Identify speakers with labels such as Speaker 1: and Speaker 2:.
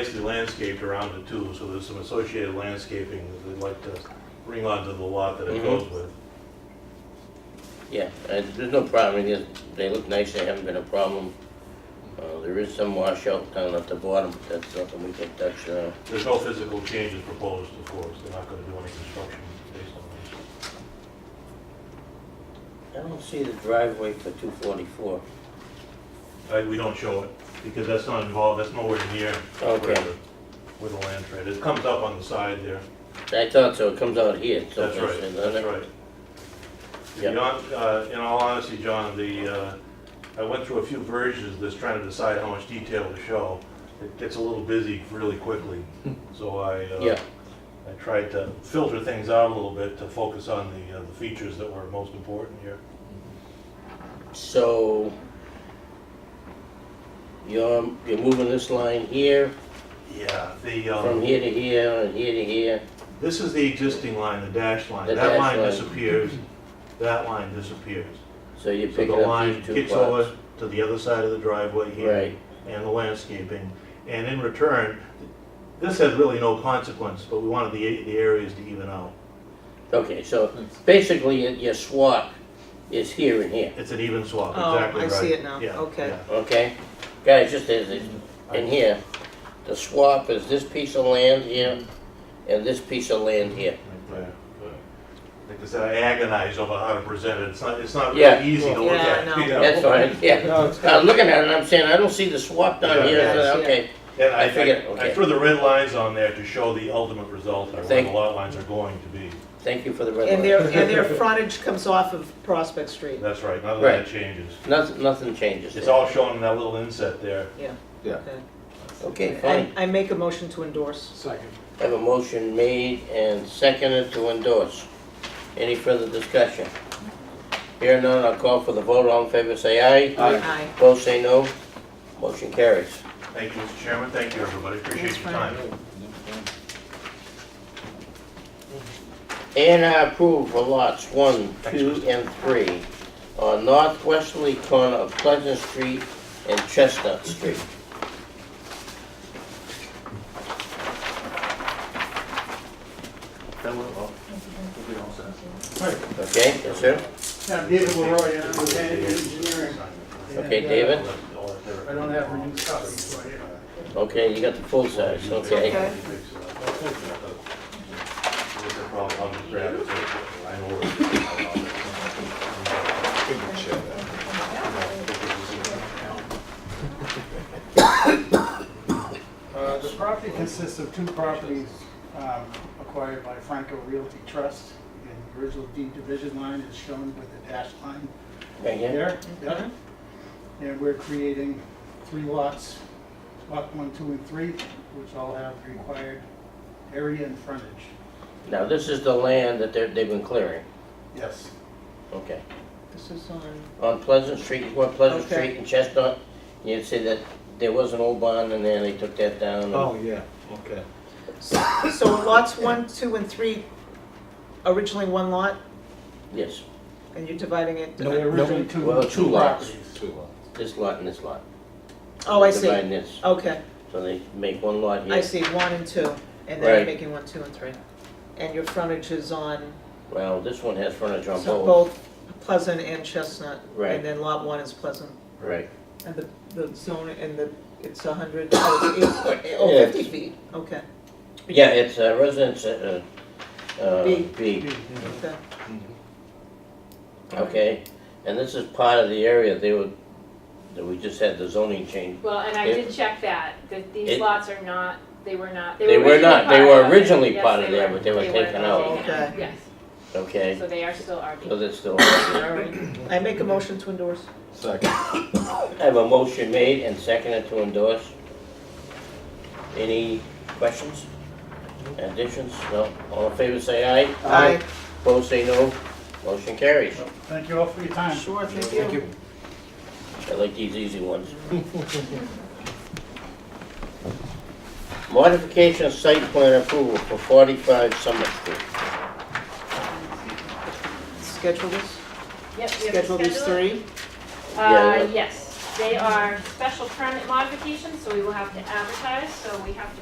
Speaker 1: nicely landscaped around it too, so there's some associated landscaping that they'd like to bring onto the lot that it
Speaker 2: Mhm.
Speaker 1: goes with.
Speaker 2: Yeah, uh, there's no problem, It is- they look nice, they haven't been a problem. Uh, There is some washout down at the bottom, but that's uh, nothing we can touch now.
Speaker 1: There's no physical changes proposed, of course, they're not gonna do any construction based on
Speaker 2: I don't see the driveway for 244.
Speaker 1: this. I- We don't show it, because that's not involved, that's nowhere near where
Speaker 2: Okay.
Speaker 1: the, where the land trade, it comes up on the side there,
Speaker 2: I thought so, it comes out here. so
Speaker 1: that's right,
Speaker 2: it's-
Speaker 1: that's right. If eh? you
Speaker 2: Yep.
Speaker 1: don't- uh, In all honesty, John, the, uh, I went through a few versions of this, trying to decide how much detail to show. It gets a little busy really quickly, so I, uh,
Speaker 2: Yeah,
Speaker 1: I tried to filter things out a little bit to focus on the, uh, the features that were most important here.
Speaker 2: so you're, you're moving this line here,
Speaker 1: Yeah, the,
Speaker 2: from
Speaker 1: um,
Speaker 2: here to here, and here to here.
Speaker 1: this is the existing line, the dash line.
Speaker 2: The
Speaker 1: That
Speaker 2: dash
Speaker 1: line
Speaker 2: line.
Speaker 1: disappears, that line disappears.
Speaker 2: So you're
Speaker 1: So the
Speaker 2: picking up
Speaker 1: line
Speaker 2: these two
Speaker 1: kicks
Speaker 2: plots.
Speaker 1: over to the other side of the driveway here.
Speaker 2: Right,
Speaker 1: and the landscaping. And in return, this has really no consequence, but we wanted the, the areas to even out.
Speaker 2: okay, so basically your- your swap is here and here.
Speaker 1: It's an even swap,
Speaker 3: Oh,
Speaker 1: exactly
Speaker 3: I
Speaker 1: right.
Speaker 3: see it now.
Speaker 1: Yeah,
Speaker 3: Okay.
Speaker 1: yeah.
Speaker 2: Okay, guys, just as, it- in here, the swap is this piece of land here and this piece of land here.
Speaker 1: Right there. Like I said, I agonize over how to present it, it's not, it's not
Speaker 2: Yeah.
Speaker 1: really easy to look
Speaker 3: Yeah, I
Speaker 1: at.
Speaker 3: know.
Speaker 1: you
Speaker 2: That's fine, yeah.
Speaker 4: No, it's
Speaker 2: I was
Speaker 4: good.
Speaker 2: looking at it and I'm saying, I don't see the swap down here, I
Speaker 3: Yeah.
Speaker 2: said, okay.
Speaker 1: And
Speaker 2: I figured,
Speaker 1: I
Speaker 2: okay.
Speaker 1: threw the red lines on there to show the ultimate result, or where
Speaker 2: Thank
Speaker 1: the
Speaker 2: you.
Speaker 1: lot lines are going to be.
Speaker 2: Thank you for the red
Speaker 3: And
Speaker 2: line.
Speaker 3: their, and their frontage comes off of Prospect Street.
Speaker 1: That's right, none of that
Speaker 2: Right.
Speaker 1: changes.
Speaker 2: Nothing, nothing changes.
Speaker 1: It's
Speaker 2: there.
Speaker 1: all shown in that little inset there.
Speaker 3: Okay.
Speaker 2: Okay,
Speaker 3: I
Speaker 2: fine.
Speaker 3: I make a motion to endorse.
Speaker 4: Second.
Speaker 2: I Have a motion made and seconded to endorse. Any further discussion? Here none, I'll call for the vote, all in favor say aye.
Speaker 4: Aye.
Speaker 3: Aye.
Speaker 2: Opposed say no. Motion carries.
Speaker 1: Thank you, Mr. Chairman, thank you, everybody,
Speaker 3: That's
Speaker 1: appreciate your
Speaker 3: fine.
Speaker 1: time.
Speaker 2: And I approve for lots one, two, and three on northwesterly corner of Pleasant Street and Chestnut Street.
Speaker 5: That will, oh, we'll be all set.
Speaker 2: Okay, yes, sir?
Speaker 4: Yeah, David Leroy, I'm with Andy Engineering.
Speaker 2: Okay, David?
Speaker 4: I don't have reduced copies, so I-
Speaker 2: Okay, you got the full size, okay.
Speaker 3: Okay.
Speaker 4: Uh, The property consists of two properties um, acquired by Franco Realty Trust. And the original deed division line is shown with the dashed line
Speaker 2: Right here?
Speaker 4: here. Yep. And we're creating three lots, lot one, two, and three, which all have required area and frontage.
Speaker 2: Now, this is the land that they're, they've been clearing,
Speaker 4: Yes.
Speaker 2: okay.
Speaker 3: This is on,
Speaker 2: On Pleasant Street, you go on Pleasant
Speaker 3: Okay.
Speaker 2: Street and Chestnut, you'd see that there was an old barn in there, they took that down.
Speaker 5: Oh, yeah, okay.
Speaker 3: so lots one, two, and three, originally one lot,
Speaker 2: Yes,
Speaker 3: and you're dividing it?
Speaker 4: They're originally two
Speaker 2: Well, two lots.
Speaker 4: properties.
Speaker 5: Two lots.
Speaker 2: this lot and this lot.
Speaker 3: Oh, I see.
Speaker 2: Dividing this,
Speaker 3: Okay,
Speaker 2: so they make one lot here.
Speaker 3: I see, one and two, and then you're
Speaker 2: Right.
Speaker 3: making one, two, and three. And your frontage is on
Speaker 2: Well, this one has frontage on
Speaker 3: so
Speaker 2: both,
Speaker 3: both Pleasant and Chestnut.
Speaker 2: Right.
Speaker 3: And then lot one is Pleasant.
Speaker 2: right.
Speaker 3: And the, the zone, and the, it's a hundred, oh, it's eight- oh,
Speaker 2: Yeah.
Speaker 3: 50 feet, okay,
Speaker 2: Yeah, it's uh, residence, uh, uh,
Speaker 3: B.
Speaker 2: B,
Speaker 3: okay.
Speaker 2: okay? And this is part of the area they were, that we just had the zoning change.
Speaker 6: Well, and I did check that, that these
Speaker 2: It-
Speaker 6: lots are not, they were not,
Speaker 2: They
Speaker 6: they were
Speaker 2: were
Speaker 6: originally
Speaker 2: not. They
Speaker 6: part
Speaker 2: were
Speaker 6: of it.
Speaker 2: originally
Speaker 6: Yes,
Speaker 2: part of there, but they were taken out.
Speaker 3: Okay.
Speaker 6: Yes,
Speaker 2: Okay,
Speaker 6: so they are still
Speaker 2: so
Speaker 6: RB.
Speaker 2: that's still,
Speaker 3: All right. I make a motion to endorse.
Speaker 5: Second.
Speaker 2: I have a motion made and seconded to endorse. Any questions? Additions? No? All in favor, say aye.
Speaker 4: Aye.
Speaker 2: Opposed, say no. Motion carries.
Speaker 4: So, Thank you all for your time.
Speaker 3: Sure, thank you.
Speaker 2: I like these easy ones. Modification of site plan approval for 45 Summit Street.
Speaker 3: Schedule this,
Speaker 6: Yep, we have to
Speaker 3: schedule these
Speaker 6: schedule it.
Speaker 3: three.
Speaker 2: Yeah,
Speaker 6: Uh, yes. They are special permit modifications, so we will have to advertise, so we have to